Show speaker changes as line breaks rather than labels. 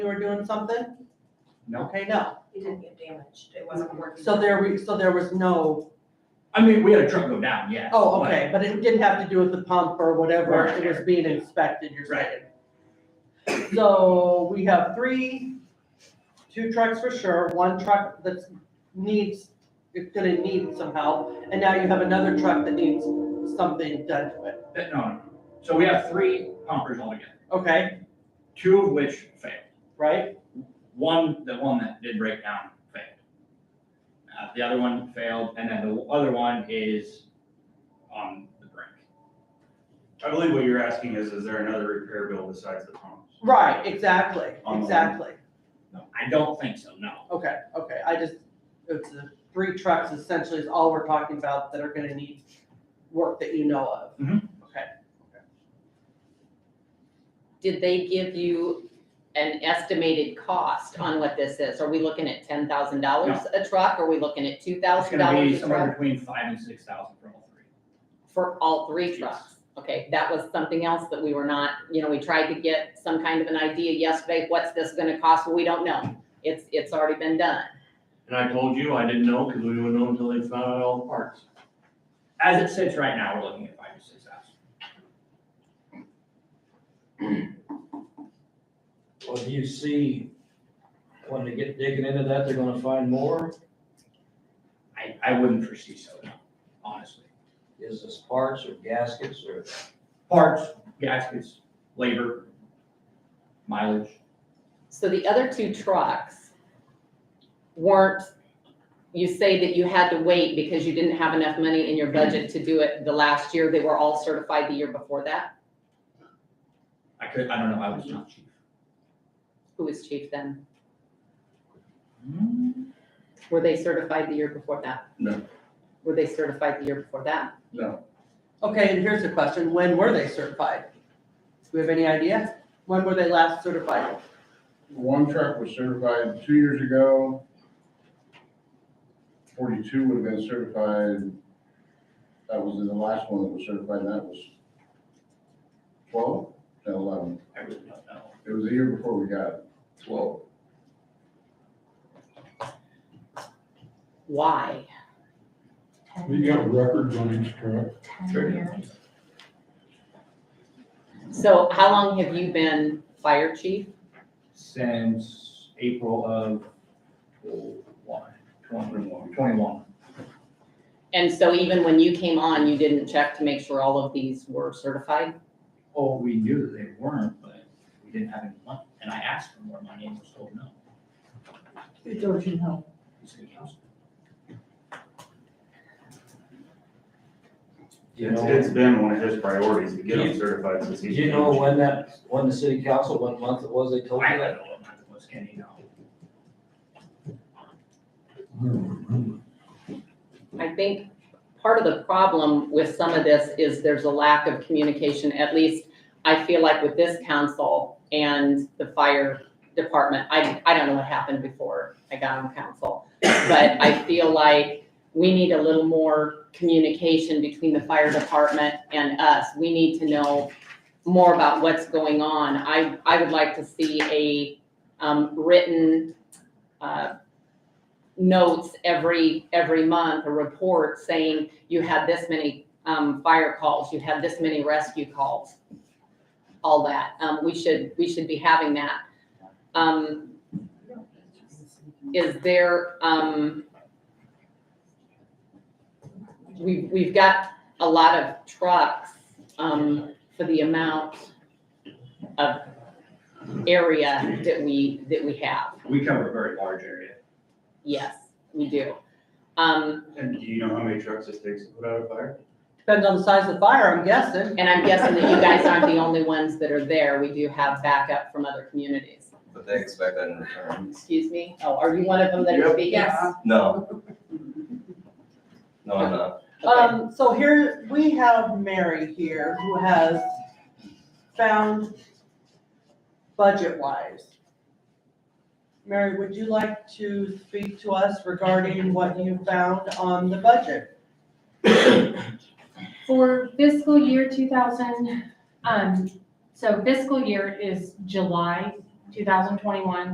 we were doing something?
No.
Okay, no.
It didn't get damaged, it wasn't working.
So there, we- so there was no,
I mean, we had a truck go down, yeah.
oh, okay, but it didn't have to do with the pump or whatever,
Right.
it was being inspected, you're
Right.
saying? So we have three, two trucks for sure, one truck that needs, it's gonna need some help, and now you have another truck that needs something done to it,
but That, no, no, no. So we have three pumpers altogether,
okay,
two of which failed.
right?
One, the one that did break down failed. Uh, the other one failed, and then the other one is on the brink.
I believe what you're asking is, is there another repair bill besides the pumps?
Right, exactly,
On the line.
exactly,
I don't think so, no.
okay, okay, I just, it's the three trucks essentially is all we're talking about that are gonna need work that you know of.
Mhm.
Okay,
Did they give you an estimated cost on what this is? Are we looking at ten thousand dollars a truck? Are we looking at two
It's
thousand
gonna be
dollars a
somewhere
truck
between five and six thousand for all three.
for all three
Yes.
trucks? Okay, that was something else that we were not, you know, we tried to get some kind of an idea yesterday, what's this gonna cost? Well, we don't know. It's, it's already been done.
And I told you I didn't know because we wouldn't know until they found out all the parts.
As it sits right now, we're looking at five to six thousand.
Well, do you see, when they get digging into that, they're gonna find more?
I, I wouldn't foresee so, no, honestly.
Is this parts or gaskets or?
Parts, gaskets, labor, mileage.
So the other two trucks weren't, you say that you had to wait because you didn't have enough money in your budget to do it the last year. They were all certified the year before that.
I could, I don't know, I was not chief.
Who was chief then? Were they certified the year before that?
No.
Were they certified the year before that?
okay, and here's the question, when were they certified? Do we have any idea? When were they last certified?
One truck was certified two years ago. Forty-two would have been certified, that was the last one that was certified, and that was twelve, no, eleven.
I really don't know.
It was the year before we got it, twelve.
Why?
We got records on each truck.
Ten years.
So how long have you been fire chief?
Since April of one, twenty-one, twenty-one.
And so even when you came on, you didn't check to make sure all of these were certified?
Oh, we knew that they weren't, but we didn't have any money, and I asked for more money and was told no.
Who told you no?
The city council.
You
It's-
know,
it's been one of his priorities to get them certified since
do
he's.
you know when that, when the city council, what month it was they told
I
you
don't
that?
know what month it was, Kenny, no.
I think part of the problem with some of this is there's a lack of communication, at least I feel like with this council and the fire department, I, I don't know what happened before I got on council. But I feel like we need a little more communication between the fire department and us. We need to know more about what's going on. I, I would like to see a, um, written, uh, notes every, every month, a report saying you had this many um, fire calls, you had this many rescue calls, all that. Um, We should, we should be having that. Um, Is there, um, we, we've got a lot of trucks um, for the amount of area that we, that we have.
We cover a very large area.
Yes, we do. Um,
And do you know how many trucks it takes to put out a fire?
Depends on the size of the fire, I'm guessing.
And I'm guessing that you guys aren't the only ones that are there. We do have backup from other communities.
But they expect that in return.
Excuse me? Oh, are you one of them that is speaking?
Yes.
No. No, I'm not.
Okay.
Um, so here, we have Mary here who has found budget wise. Mary, would you like to speak to us regarding what you found on the budget?
For fiscal year two thousand, um, so fiscal year is July two thousand twenty-one